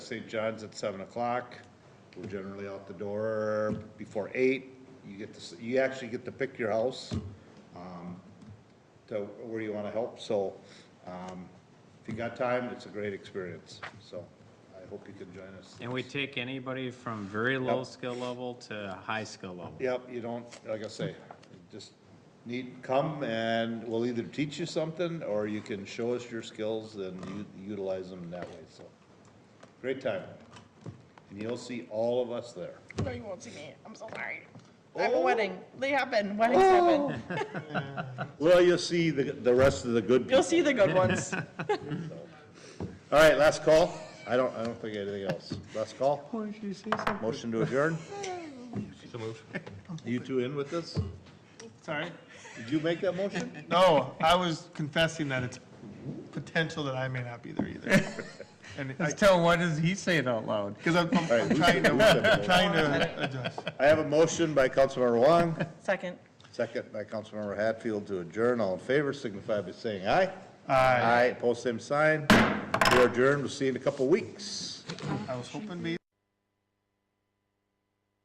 St. John's at seven o'clock. We're generally out the door before eight. You get to, s- you actually get to pick your house, um, to where you wanna help, so, um, if you got time, it's a great experience, so I hope you can join us. And we take anybody from very low skill level to high skill level. Yep, you don't, like I say, just need, come and we'll either teach you something or you can show us your skills and u- utilize them that way, so. Great time. And you'll see all of us there. No, you won't see me. I'm so sorry. I have a wedding. They happen. Weddings happen. Well, you'll see the, the rest of the good people. You'll see the good ones. All right, last call. I don't, I don't think anything else. Last call. Motion to adjourn. You two in with this? Sorry? Did you make that motion? No, I was confessing that it's potential that I may not be there either. And I, Tell, what does he say it out loud? because I'm, I'm- right, I'm we trying can- we can- to, trying to adjust. I have a motion by Councilmember Wong. Second. Second by Councilmember Hatfield to adjourn. All in favor signify by saying aye. Aye. Aye, post same sign. We are adjourned. We'll see you in a couple weeks. I was hoping maybe